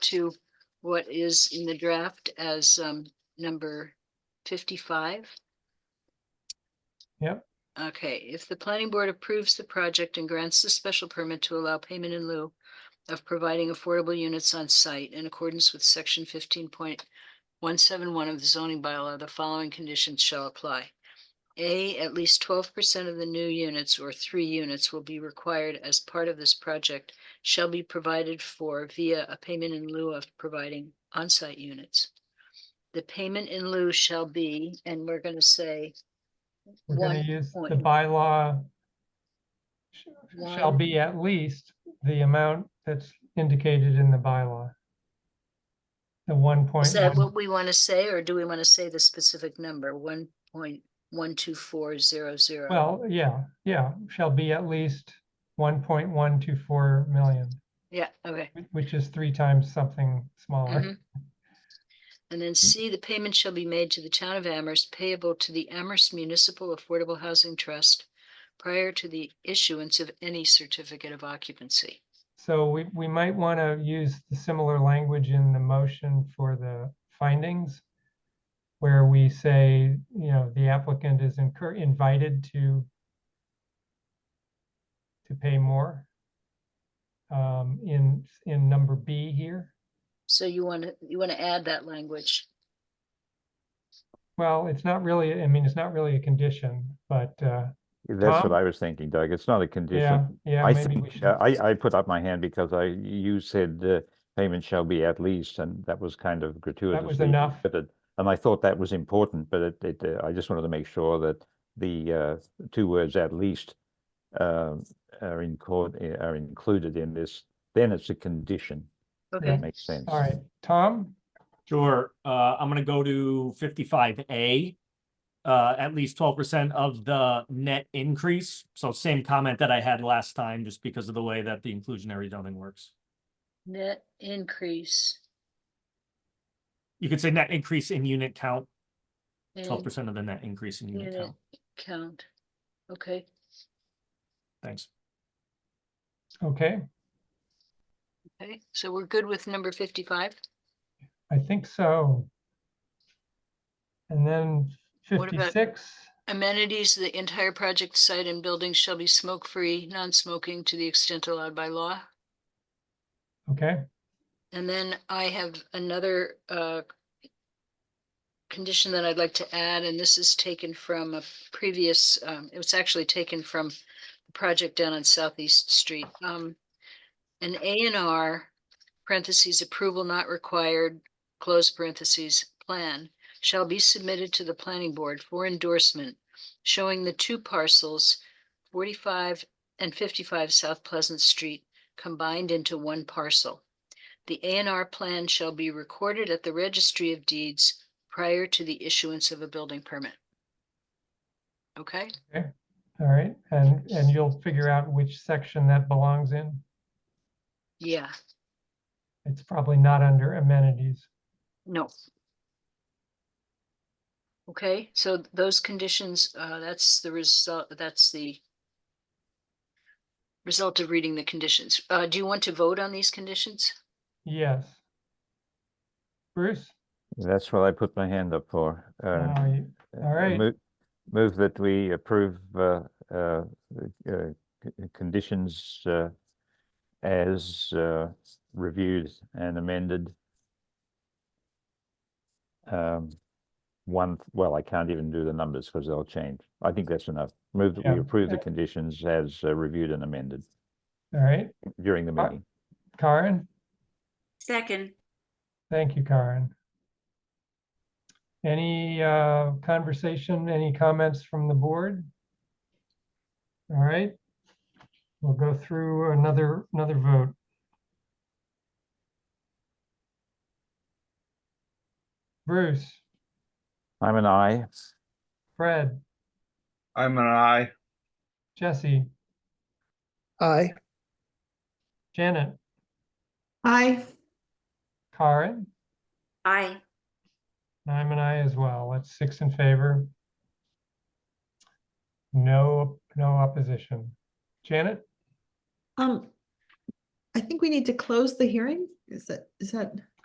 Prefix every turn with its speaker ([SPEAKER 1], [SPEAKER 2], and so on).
[SPEAKER 1] to what is in the draft as um number fifty-five?
[SPEAKER 2] Yep.
[SPEAKER 1] Okay, if the planning board approves the project and grants the special permit to allow payment in lieu of providing affordable units on site in accordance with section fifteen point one seven one of the zoning bylaw, the following conditions shall apply. A, at least twelve percent of the new units or three units will be required as part of this project shall be provided for via a payment in lieu of providing on-site units. The payment in lieu shall be, and we're gonna say
[SPEAKER 2] We're gonna
[SPEAKER 1] One
[SPEAKER 2] use the
[SPEAKER 1] point.
[SPEAKER 2] bylaw sh- shall
[SPEAKER 1] One.
[SPEAKER 2] be at least the amount that's indicated in the bylaw. The one point
[SPEAKER 1] Is that
[SPEAKER 2] one,
[SPEAKER 1] what we want to say, or do we want to say the specific number, one point one two four zero zero?
[SPEAKER 2] well, yeah, yeah, shall be at least one point one two four million,
[SPEAKER 1] Yeah, okay.
[SPEAKER 2] wh- which is three times something smaller.
[SPEAKER 1] Mhm. And then C, the payment shall be made to the town of Amherst payable to the Amherst Municipal Affordable Housing Trust prior to the issuance of any certificate of occupancy.
[SPEAKER 2] So we, we might want to use the similar language in the motion for the findings. Where we say, you know, the applicant is incur, invited to. To pay more. Um, in, in number B here,
[SPEAKER 1] So you want to, you want to add that language?
[SPEAKER 2] well, it's not really, I mean, it's not really a condition, but, uh,
[SPEAKER 3] That's what
[SPEAKER 2] Tom?
[SPEAKER 3] I was thinking, Doug. It's not a
[SPEAKER 2] yeah,
[SPEAKER 3] condition.
[SPEAKER 2] yeah,
[SPEAKER 3] I
[SPEAKER 2] maybe we
[SPEAKER 3] think,
[SPEAKER 2] should.
[SPEAKER 3] uh, I, I put up my hand because I, you said the payment shall be at least, and that was kind of gratuitous.
[SPEAKER 2] enough.
[SPEAKER 3] And I thought that was important, but it, it, uh, I just wanted to make sure that the, uh, two words at least, um, are in court, eh, are included in this, then it's a condition.
[SPEAKER 1] Okay,
[SPEAKER 3] That makes sense.
[SPEAKER 2] All right, Tom,
[SPEAKER 4] Sure, uh, I'm gonna go to fifty-five A. Uh, at least twelve percent of the net increase, so same comment that I had last time, just because of the way that the inclusionary zoning works.
[SPEAKER 1] net increase.
[SPEAKER 4] You could say net increase in unit count,
[SPEAKER 1] in
[SPEAKER 4] twelve percent of the net increase in unit
[SPEAKER 1] Unit
[SPEAKER 4] count,
[SPEAKER 1] count. Okay,
[SPEAKER 4] thanks.
[SPEAKER 2] okay,
[SPEAKER 1] okay, so we're good with number fifty-five?
[SPEAKER 2] I think so. And then
[SPEAKER 1] What about-
[SPEAKER 2] fifty-six.
[SPEAKER 1] Amenities, the entire project site and buildings shall be smoke-free, non-smoking to the extent allowed by law.
[SPEAKER 2] Okay,
[SPEAKER 1] And then I have another uh, condition that I'd like to add, and this is taken from a previous, um, it was actually taken from the project down on Southeast Street. Um, An A and R, parentheses, approval not required, close parentheses, plan, shall be submitted to the planning board for endorsement showing the two parcels, forty-five and fifty-five South Pleasant Street, combined into one parcel. The A and R plan shall be recorded at the registry of deeds prior to the issuance of a building permit. Okay,
[SPEAKER 2] all right, and, and you'll figure out which section that belongs in.
[SPEAKER 1] yeah,
[SPEAKER 2] It's probably not under amenities.
[SPEAKER 1] no. Okay, so those conditions, uh, that's the result, that's the result of reading the conditions. Uh, do you want to vote on these conditions?
[SPEAKER 2] Yes. Bruce?
[SPEAKER 3] That's what I put my hand up for. uh,
[SPEAKER 2] Now you-
[SPEAKER 3] Uh,
[SPEAKER 2] All right.
[SPEAKER 3] mo- Move that we approve uh, uh, uh, c- conditions uh, as uh, reviewed and amended. Um, One, well, I can't even do the numbers because they'll change. I think that's enough. Move that we
[SPEAKER 2] Yeah.
[SPEAKER 3] approve the
[SPEAKER 2] Uh,
[SPEAKER 3] conditions as uh, reviewed and amended
[SPEAKER 2] All right,
[SPEAKER 3] during the
[SPEAKER 2] Uh,
[SPEAKER 3] meeting.
[SPEAKER 2] Karen?
[SPEAKER 5] Second,
[SPEAKER 2] Thank you, Karen. Any uh, conversation, any comments from the board? All right, we'll go through another, another vote. Bruce,
[SPEAKER 3] I'm an aye.
[SPEAKER 2] Fred,
[SPEAKER 6] I'm an I.
[SPEAKER 2] Jesse,
[SPEAKER 7] Aye.
[SPEAKER 2] Janet,
[SPEAKER 7] Aye.
[SPEAKER 2] Karen,
[SPEAKER 5] aye.
[SPEAKER 2] and I'm an aye as well. That's six in favor. No, no opposition. Janet?
[SPEAKER 7] Um, I think we need to close the hearing Is that, is that?